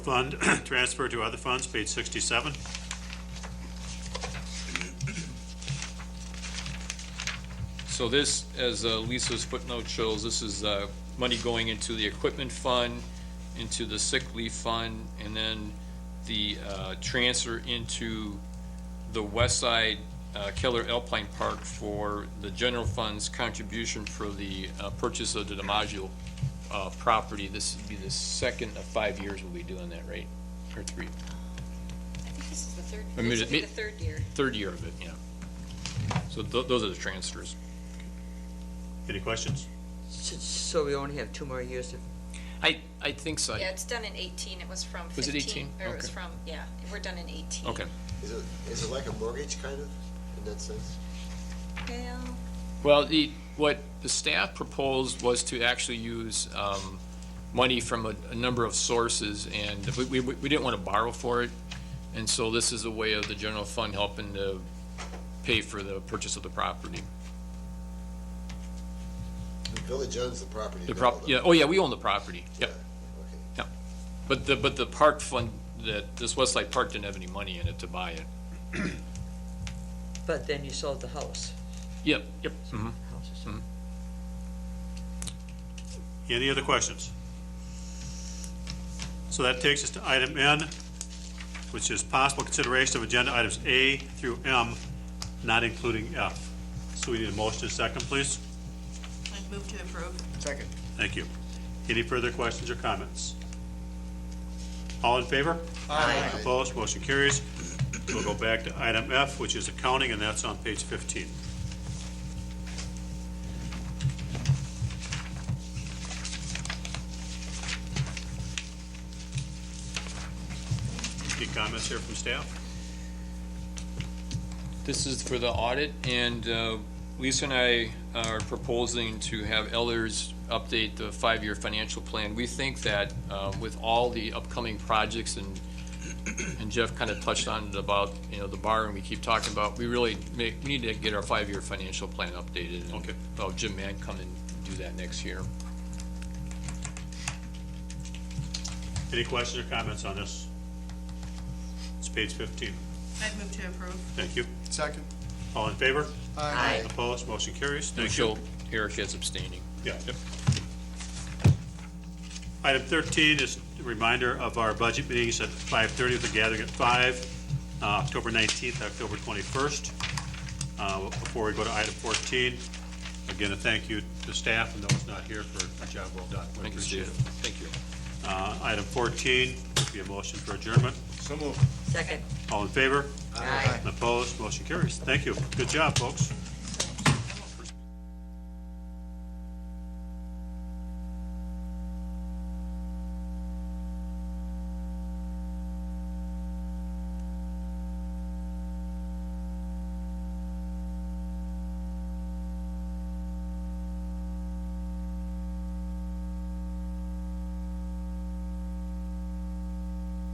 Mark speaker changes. Speaker 1: Fund transfer to other funds, page 67.
Speaker 2: So this, as uh, Lisa's footnote shows, this is uh, money going into the equipment fund, into the sick leave fund, and then the uh, transfer into the West Side uh, Keller Alpine Park for the general fund's contribution for the uh, purchase of the DiMaggio uh, property. This would be the second of five years we'll be doing that, right? Or three,
Speaker 3: I think this is the third,
Speaker 2: I mean,
Speaker 3: this
Speaker 2: it-
Speaker 3: will be
Speaker 2: it-
Speaker 3: the third year.
Speaker 2: third year of it, yeah. So tho- those are the transfers.
Speaker 1: Any questions?
Speaker 4: S- So we only have two more years to,
Speaker 2: I, I think so.
Speaker 3: Yeah, it's done in 18, it was from 15.
Speaker 2: Oh. Was it 18?
Speaker 3: Or it was
Speaker 2: Okay.
Speaker 3: from, yeah, we're done in 18.
Speaker 2: Okay.
Speaker 5: Is it, is it like a mortgage kind of, in that sense?
Speaker 3: Well,
Speaker 2: Well, the, what the staff proposed was to actually use um, money from a, a number of sources, and we, we, we didn't want to borrow for it, and so this is a way of the general fund helping to pay for the purchase of the property.
Speaker 5: The village owns the property.
Speaker 2: The
Speaker 5: now,
Speaker 2: prop,
Speaker 5: though.
Speaker 2: yeah, oh yeah, we own the property,
Speaker 5: Yeah,
Speaker 2: yep,
Speaker 5: okay.
Speaker 2: yep. But the, but the park fund, that, this Westside Park didn't have any money in it to buy it.
Speaker 4: but then you sold the house.
Speaker 2: Yep, yep. mhm.
Speaker 4: House is sold.
Speaker 1: Any other questions? So that takes us to item N, which is possible consideration of agenda items A through M, not including F. So we need a motion and a second, please.
Speaker 6: I'd move to approve.
Speaker 1: Thank you. Any further questions or comments? All in favor? Aye. Opposed, motion carries. We'll go back to item F, which is accounting, and that's on page 15. Any comments here from staff?
Speaker 2: This is for the audit, and uh, Lisa and I are proposing to have Ellers update the five-year financial plan. We think that uh, with all the upcoming projects, and and Jeff kind of touched on it about, you know, the borrowing we keep talking about, we really make, we need to get our five-year financial plan updated. and
Speaker 1: Okay.
Speaker 2: Well, Jim Mann come and do that next year.
Speaker 1: Any questions or comments on this? It's page 15.
Speaker 6: I'd move to approve.
Speaker 1: Thank you.
Speaker 7: Second.
Speaker 1: All in favor?
Speaker 7: Aye.
Speaker 1: Opposed, motion carries. Thank you.
Speaker 2: Michelle Eric is abstaining.
Speaker 1: Yeah. Item 13 is a reminder of our budget meetings at 5:30 with a gathering at 5, uh, October 19th, October 21st. Uh, Before we go to item 14, again, a thank you to staff and those not here for a job well done. We
Speaker 2: Thank you,
Speaker 1: appreciate
Speaker 2: Steve.
Speaker 1: it.
Speaker 2: Thank you.
Speaker 1: Uh, Item 14, be a motion for adjournment.
Speaker 7: So moved.
Speaker 4: Second.
Speaker 1: All in favor?
Speaker 4: Aye.
Speaker 1: Opposed? Motion carries. Thank you. Good job, folks.